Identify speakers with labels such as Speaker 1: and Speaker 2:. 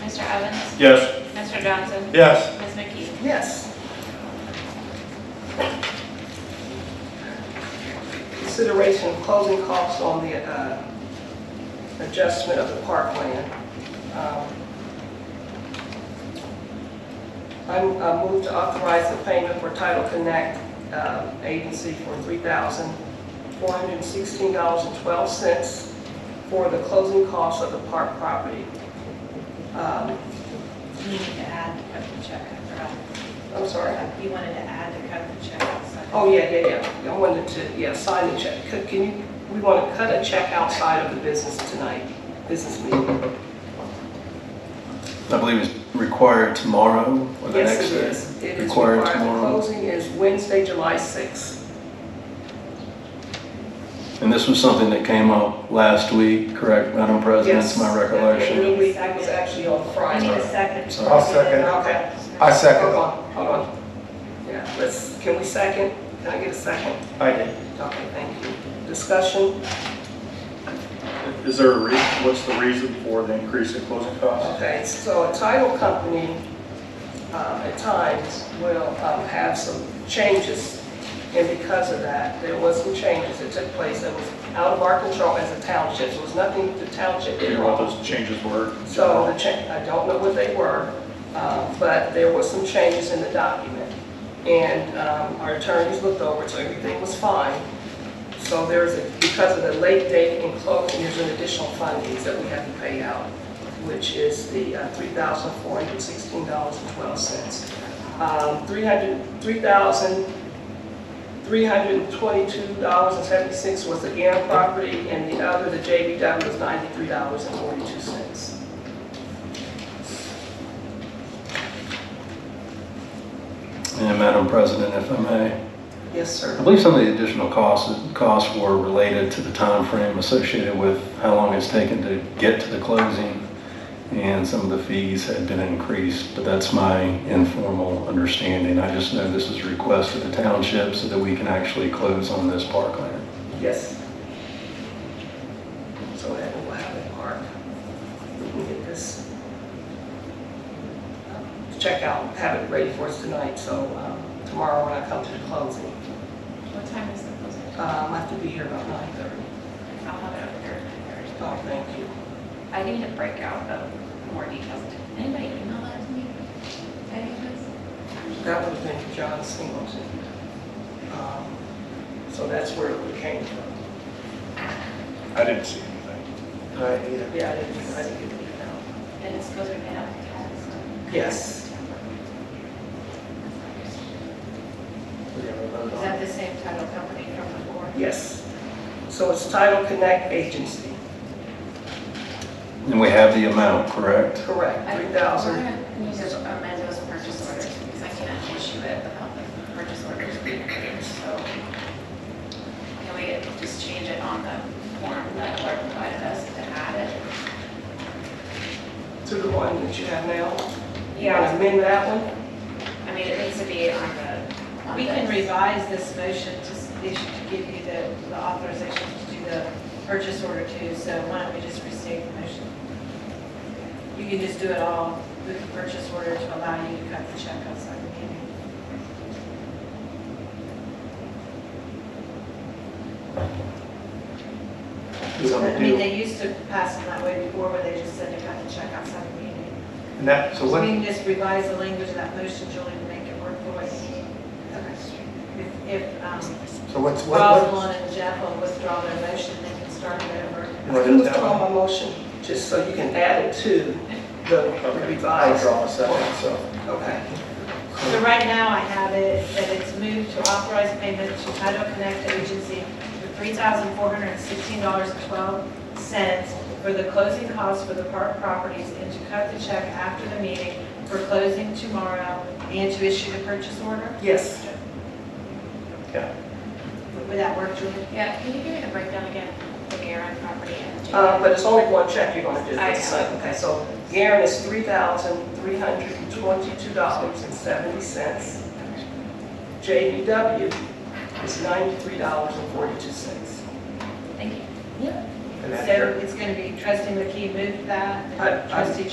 Speaker 1: Mr. Evans?
Speaker 2: Yes.
Speaker 1: Mr. Johnson?
Speaker 2: Yes.
Speaker 1: Ms. McKee?
Speaker 3: Yes. Consideration of closing costs on the uh, adjustment of the park plan. Um, I'm- I move to authorize the payment for Title Connect um, Agency for $3,416.12 for the closing costs of the park property. Um,
Speaker 4: You need to add the cut the check, I
Speaker 3: I'm sorry.
Speaker 4: forgot. You wanted to add the cut the check outside.
Speaker 3: Oh, yeah, yeah, yeah. I wanted to, yeah, sign the check. Could- Can you, we want to cut a check outside of the business tonight, business meeting.
Speaker 2: I believe it's required tomorrow or the next
Speaker 3: Yes,
Speaker 2: day.
Speaker 3: it is. It is
Speaker 2: Required
Speaker 3: required. The
Speaker 2: tomorrow.
Speaker 3: Closing is Wednesday, July 6th.
Speaker 2: And this was something that came up last week, correct, Madam President? It's my
Speaker 3: Yes.
Speaker 2: recollection.
Speaker 3: And the week was actually on
Speaker 4: I need
Speaker 3: Friday.
Speaker 4: a second.
Speaker 2: Sorry. I'll
Speaker 5: second.
Speaker 3: Okay.
Speaker 5: I
Speaker 3: Hold
Speaker 5: second.
Speaker 3: on, hold on. Yeah, let's, can we second? Can I get a second?
Speaker 5: I did.
Speaker 3: Okay, thank you. Discussion?
Speaker 5: Is there a reason, what's the reason for the increase in closing costs?
Speaker 3: Okay, so a title company um, at times will um, have some changes, and because of that, there was some changes that took place that was out of our control as a township. It was nothing the township
Speaker 5: Do you
Speaker 3: did
Speaker 5: know what
Speaker 3: wrong.
Speaker 5: those changes were?
Speaker 3: So the cha, I don't know what they were, uh, but there were some changes in the document. And um, our attorneys looked over, so everything was fine. So there's, a- because of the late date and closing, there's an additional fundings that we have to pay out, which is the uh, $3,416.12. Um, 300 $3,322.76 was the GAM property, and the other, the JBW, was $93.42.
Speaker 2: And Madam President, if I may,
Speaker 3: Yes, sir.
Speaker 2: I believe some of the additional costs, costs were related to the time frame associated with how long it's taken to get to the closing, and some of the fees had been increased, but that's my informal understanding. I just know this is a request of the township so that we can actually close on this parkland.
Speaker 3: Yes. So that will have it marked. We can get this um, check out, have it ready for us tonight, so um, tomorrow when I come to the closing.
Speaker 1: What time is the closing?
Speaker 3: Um, I have to be here about 9:30.
Speaker 1: I'll have it over here. Thursday.
Speaker 3: Oh, thank you.
Speaker 1: I need to break out the more details. Anybody email that to me? Any of us?
Speaker 3: That would have been John Singleton. Um, So that's where it came from.
Speaker 5: I didn't see anything.
Speaker 3: Yeah, I didn't, I didn't get it out.
Speaker 1: And it's supposed to be out of tax.
Speaker 3: Yes.
Speaker 4: Is that the same title company from before?
Speaker 3: Yes. So it's Title Connect Agency,
Speaker 2: And we have the amount, correct?
Speaker 3: correct,
Speaker 1: I-
Speaker 3: 3,000.
Speaker 1: We're gonna Use those amend those purchase orders because I can't issue it without the purchase orders being approved, so. Can we just change it on the form that Laura provided us to add it?
Speaker 3: to the one that you have now?
Speaker 1: Yeah.
Speaker 3: Amend that one?
Speaker 1: I mean, it needs to be on the. on
Speaker 4: We
Speaker 1: the-
Speaker 4: can revise this motion to, s- they should give you the the authorization to do the purchase order too, so why don't we just restate the motion? You can just do it all with the purchase order to allow you to cut the check outside the meeting. I mean, they used to pass them that way before, where they just said to cut the check outside the meeting.
Speaker 5: And that, so
Speaker 4: So we
Speaker 5: what,
Speaker 4: can just revise the language of that motion, Julie, to make it work for what you need. If- If, um,
Speaker 5: so what's, what,
Speaker 4: Rosalind and Jeff will withdraw their motion, they can start it over.
Speaker 5: What
Speaker 3: I
Speaker 5: is
Speaker 3: can
Speaker 5: that
Speaker 3: withdraw
Speaker 5: one?
Speaker 3: my motion, just so you can add it to the
Speaker 5: Okay. I
Speaker 3: revised.
Speaker 5: draw a second, so.
Speaker 3: Okay,
Speaker 4: So right now, I have it that it's moved to authorize payment to Title Connect Agency for $3,416.12 for the closing costs for the park properties and to cut the check after the meeting for closing tomorrow and to issue the purchase order.
Speaker 3: yes.
Speaker 4: Would that work, Julie?
Speaker 1: Yeah, can you give me the breakdown again, the Garen property and the.
Speaker 3: Uh, But it's only one check you're going to do.
Speaker 1: I know.
Speaker 3: Okay, so Garen is $3,322.70. JBW is $93.42.
Speaker 1: Thank you.
Speaker 4: So it's going to be trustee McKee moved that,
Speaker 3: I- I-
Speaker 4: trustee